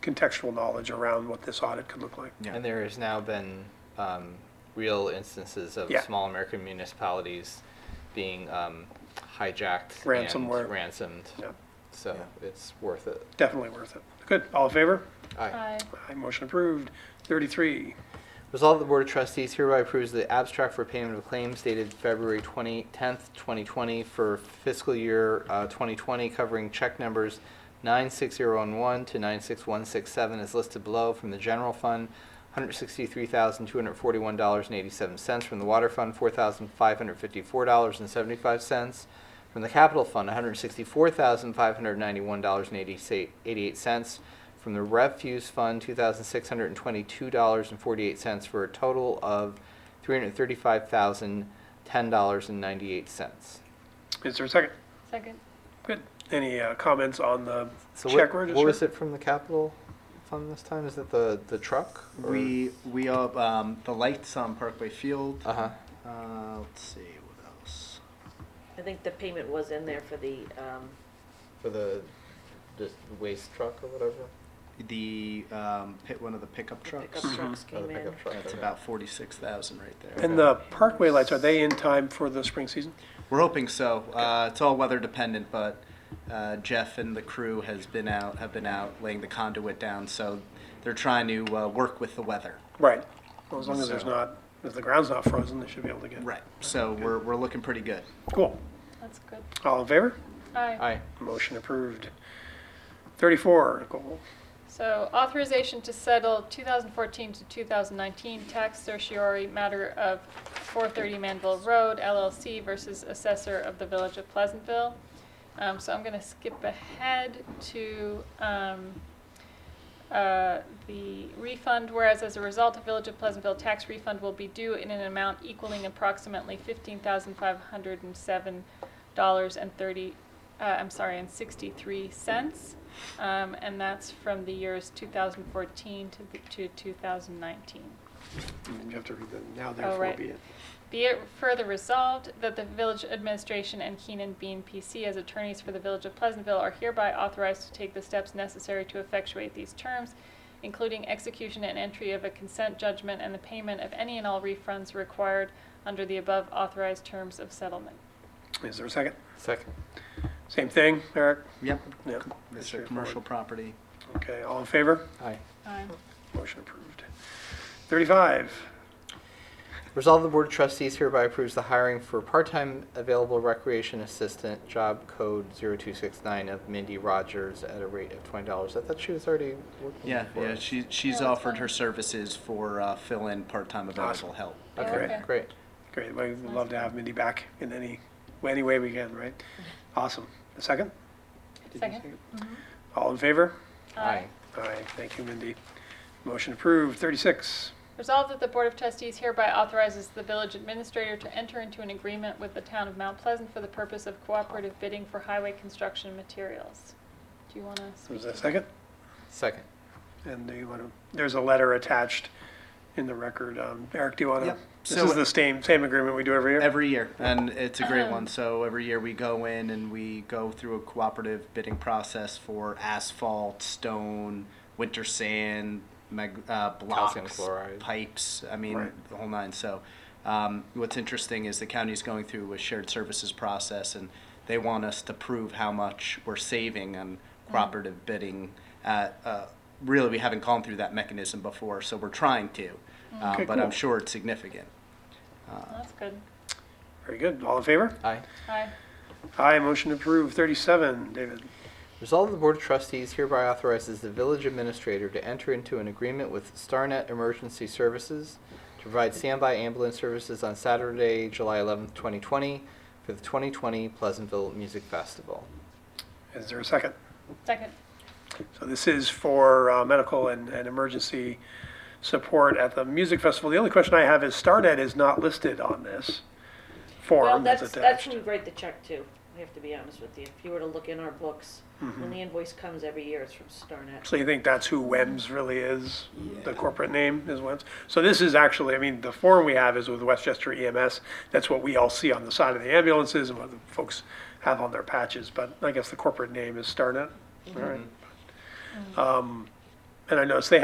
contextual knowledge around what this audit could look like. Yeah. And there has now been um, real instances of Yeah. small American municipalities being um, hijacked Ransomware. and ransomed. Yeah, So Yeah. it's worth it. definitely worth it. Good, all in favor? Uh, Aye. Aye, motion approved. Thirty-three, Resolve the Board of Trustees hereby approves the abstract for payment of claims dated February 20, 10th, 2020 for fiscal year uh, 2020 covering check numbers 96011 to 96167 as listed below from the general fund, $163,241.87 from the water fund, $4,554.75 from the capital fund, $164,591.88 from the refuse fund, two thousand six hundred and twenty-two dollars and forty-eight cents for a total of three hundred and thirty-five thousand, ten dollars and ninety-eight cents. is there a second? Second. Good. Any uh, comments on the So check what, what was register? it from the capital fund this time? Is it the, the truck? or- We we up um, the lights on Parkway Field. Uh-huh. Uh, let's see what else. I think the payment was in there for the, um, For the, the waste truck or whatever? The um, pit one of the pickup the trucks. pickup Mhm. trucks Or Uh-huh. the came in. pickup truck, That's okay. about forty-six thousand right there. And the parkway lights, are they in time for the spring season? We're hoping so. Uh, it's all weather dependent, but uh, Jeff and the crew has been out have been out laying the conduit down, so they're trying to uh, work with the weather. Right. Well, as long as there's So- not, if the ground's not frozen, they should be able to get. Right. So we're we're looking pretty good. Cool. That's good. All in favor? Aye. Aye. Motion approved. Thirty-four, Nicole. So authorization to settle 2014 to 2019 tax certiorari matter of 430 Manville Road LLC versus assessor of the Village of Pleasantville. Um, So I'm going to skip ahead to um, uh, the refund, whereas as a result, the Village of Pleasantville tax refund will be due in an amount equaling approximately fifteen thousand five hundred and seven dollars and thirty, uh, I'm sorry, and sixty-three cents. Um, and that's from the years two thousand fourteen to, the- to two thousand nineteen. You have to read the now therefore right. be it. Be it further resolved that the village administration and Keenan Bean PC as attorneys for the village of Pleasantville are hereby authorized to take the steps necessary to effectuate these terms, including execution and entry of a consent judgment and the payment of any and all refunds required under the above authorized terms of settlement. Is there a second? Second. Same thing, Eric? Yep. Yeah. that's It's a straightforward. commercial property. Okay, all in favor? Aye. Aye. Motion approved. Thirty-five, Resolve the Board of Trustees hereby approves the hiring for part-time available recreation assistant, job code 0269 of Mindy Rogers at a rate of $20. I thought she was already working Yeah. for Yeah. us. She she's Yeah, that's offered her fine. services for uh, fill-in part-time available Awesome. help. Yeah, Okay, okay. great. great, we'd love to have Mindy back in any, any way we can, right? Awesome. A second? Did you Second. Mm-hmm. it? All in favor? Aye. Aye, thank you, Mindy. Motion approved. Thirty-six, Resolved that the Board of Trustees hereby authorizes the village administrator to enter into an agreement with the town of Mount Pleasant for the purpose of cooperative bidding for highway construction materials. Do you want to speak? was there a second? Second. And do you want to, there's a letter attached in the record. Um, Eric, do you want to? Yep. This So- is the same, same agreement we do every year? Every year, and it's a great one. So every year we go in and we go through a cooperative bidding process for asphalt, stone, winter sand, mag- uh, Calcium blocks, chloride. pipes. I mean, Right. the whole nine. So um, what's interesting is the county's going through a shared services process, and they want us to prove how much we're saving on cooperative bidding. At, uh, really, we haven't gone through that mechanism before, so we're trying to. Uh, Okay, but cool. I'm sure it's significant. Uh, Oh, That's good. Very good. All in favor? Aye. Aye. Aye, motion approved. Thirty-seven, David. Resolve the Board of Trustees hereby authorizes the village administrator to enter into an agreement with Starnet Emergency Services to provide standby ambulance services on Saturday, July 11th, 2020 for the 2020 Pleasantville Music Festival. Is there a second? Second. So this is for uh, medical and, and emergency support at the music festival. The only question I have is Starnet is not listed on this well, form that's that's, that's attached. who we write the check to, I have to be honest with you. If you were to look in our books, Mm-hmm. when the invoice comes every year, it's from Starnet. So you think that's who WEMS really is? The Yeah. corporate name is WEMS? So this is actually, I mean, the form we have is with Westchester EMS. That's what we all see on the side of the ambulances and what the folks have on their patches. But I guess the corporate name is Starnet. All right. Um, And I noticed they